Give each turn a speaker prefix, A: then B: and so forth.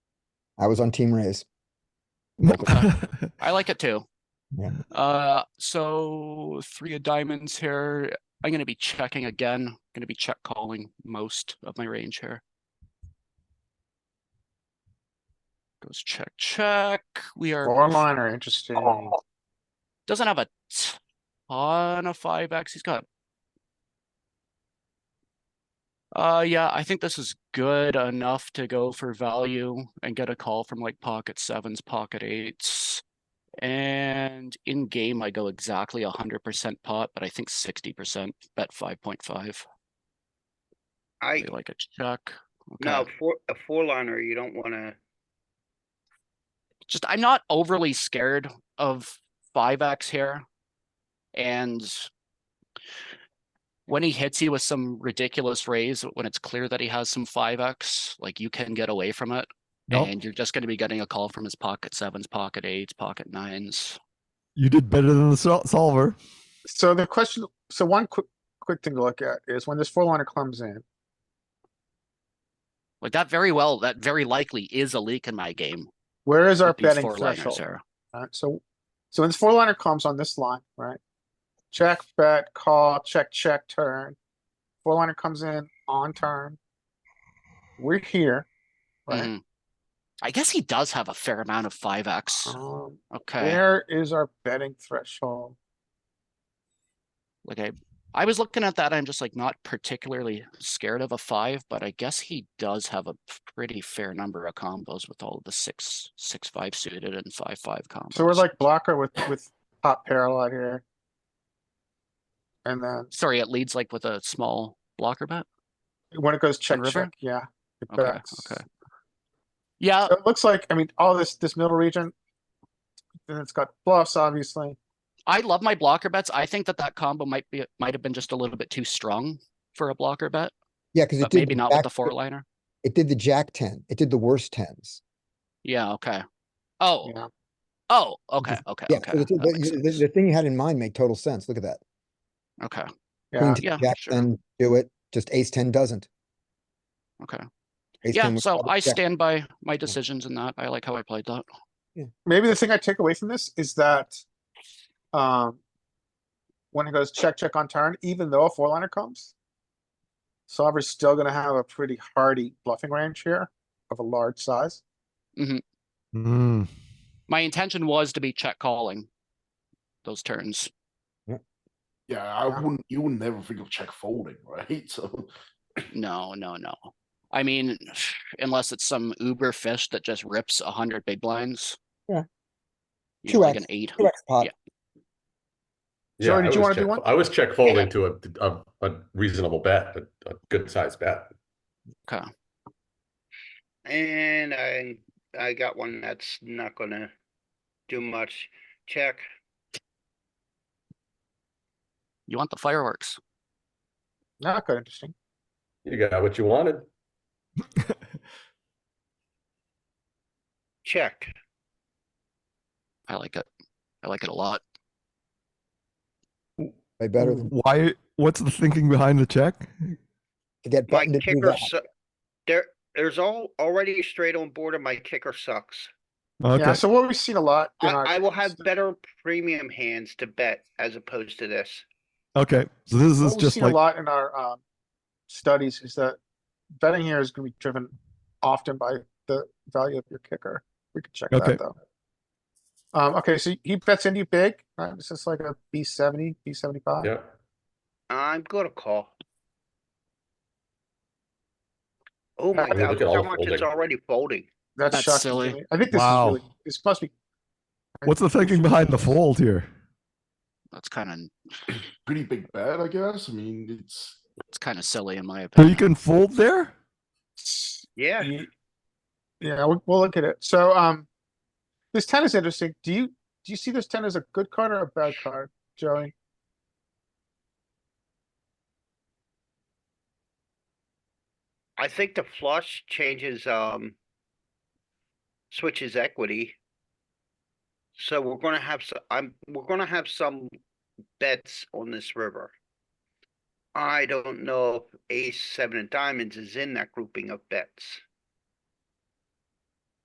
A: I was on team raise.
B: I like it too.
A: Yeah.
B: Uh, so three of diamonds here. I'm gonna be checking again. Gonna be check calling most of my range here. Goes check, check. We are,
C: Four line are interesting.
B: doesn't have a ton of five X. He's got. Uh, yeah, I think this is good enough to go for value and get a call from like pocket sevens, pocket eights. And in game, I go exactly hundred percent pot, but I think sixty percent bet five point five.
D: I,
B: Like a check.
D: no,
B: Okay.
D: four, a four liner, you don't wanna,
B: Just, I'm not overly scared of five X here. And when he hits you with some ridiculous raise, when it's clear that he has some five X, like you can get away from it.
E: No,
B: And you're just gonna be getting a call from his pocket sevens, pocket eights, pocket nines.
E: you did better than the sol- solver.
C: So the question, so one quick, quick thing to look at is when this four liner comes in,
B: Like that very well, that very likely is a leak in my game.
C: where is our
B: with these
C: betting
B: four-liners
C: threshold?
B: there.
C: Alright, so, so when this four liner comes on this line, right? Check, bet, call, check, check, turn. Four liner comes in on turn. We're here, right?
B: Mhm. I guess he does have a fair amount of five X.
C: Um,
B: Mm-hmm. Okay,
C: where is our betting threshold?
B: like I, I was looking at that, I'm just like not particularly scared of a five, but I guess he does have a pretty fair number of combos with all the six, six, five suited and five, five combos.
C: So we're like blocker with, with top pair a lot here. And then
B: Sorry, it leads like with a small blocker bet.
C: when it goes check,
B: river?
C: check, yeah. it
B: Okay,
C: bets.
B: okay. Yeah,
C: So It looks like, I mean, all this, this middle region. Then it's got bluffs, obviously.
B: I love my blocker bets. I think that that combo might be, might have been just a little bit too strong for a blocker bet,
A: Yeah, because it
B: but
A: did.
B: maybe
A: the
B: not with
A: jack-
B: the four liner.
A: It did the jack ten. It did the worst tens.
B: Yeah, okay. Oh,
C: Yeah.
B: oh, okay, okay,
A: Yeah,
B: okay.
A: so the,
B: that makes
A: the- the-
B: sense.
A: the thing you had in mind made total sense. Look at that.
B: Okay.
C: Yeah,
A: Queen ten,
B: yeah,
A: Jack
B: sure.
A: ten, do it. Just ace ten doesn't.
B: Okay.
A: Ace
B: Yeah,
A: 10 was
B: so
A: probably
B: I
A: jack-
B: stand by my decisions in that. I like how I played that.
C: maybe the thing I take away from this is that, um, when it goes check, check on turn, even though a four liner comes, solver's still gonna have a pretty hardy bluffing range here of a large size.
E: Mm.
B: My intention was to be check calling those turns.
F: Yeah, I
C: Yeah.
F: wouldn't. You wouldn't ever think of check folding, right? So
B: No, no, no. I mean, unless it's some uber fish that just rips a hundred big blinds.
A: Yeah.
B: You know, like
A: 2x,
B: an eight.
A: Two X pot.
B: Yeah.
G: Yeah,
C: Sorry,
G: I
C: did you
G: was
C: wanna do
G: check-
C: one?
G: I was check folding to a, a, a reasonable bet, a, a good sized bet.
D: and I, I got one that's not gonna do much. Check,
B: You want the fireworks.
C: Not good, interesting.
G: You got what you wanted.
D: check.
B: I like it. I like it a lot.
A: Way better than
E: Why? What's the thinking behind the check?
A: to get
D: My
A: button to do
D: kicker,
A: that.
D: su- there, there's all, already a straight on board and my kicker sucks.
E: Okay.
C: Yeah, so what we've seen a lot. in our-
D: I, I will have better premium hands to bet as opposed to this.
E: okay. So this is
C: What we've
E: just
C: seen a
E: like
C: lot in our um, studies is that betting here is going to be driven often by the value of your kicker. We can check
E: Okay.
C: that though. Um, okay, so he bets into big. Right? This is like a B seventy, B seventy five.
G: Yeah.
D: I'm gonna call. Oh my
C: Look
D: god,
G: at
D: look how
G: all
D: much it's
G: folding.
D: already folding.
C: That's,
B: That's
C: shocking. to
B: silly.
C: me. I think this
E: Wow.
C: is really. This must be.
E: what's the thinking behind the fold here?
B: That's kind of,
F: pretty big bet, I guess. I mean, it's
B: it's kind of silly in my
E: So you
B: opinion.
E: can fold there.
D: Yeah,
C: Ye- Yeah, we'll, we'll look at it. So, um, this ten is interesting. Do you do you see this ten as a good card or a bad card, Joey?
D: I think the flush changes, um. Switches equity. So we're gonna have, so, I'm, we're gonna have some bets on this river. I don't know if ace, seven and diamonds is in that grouping of bets.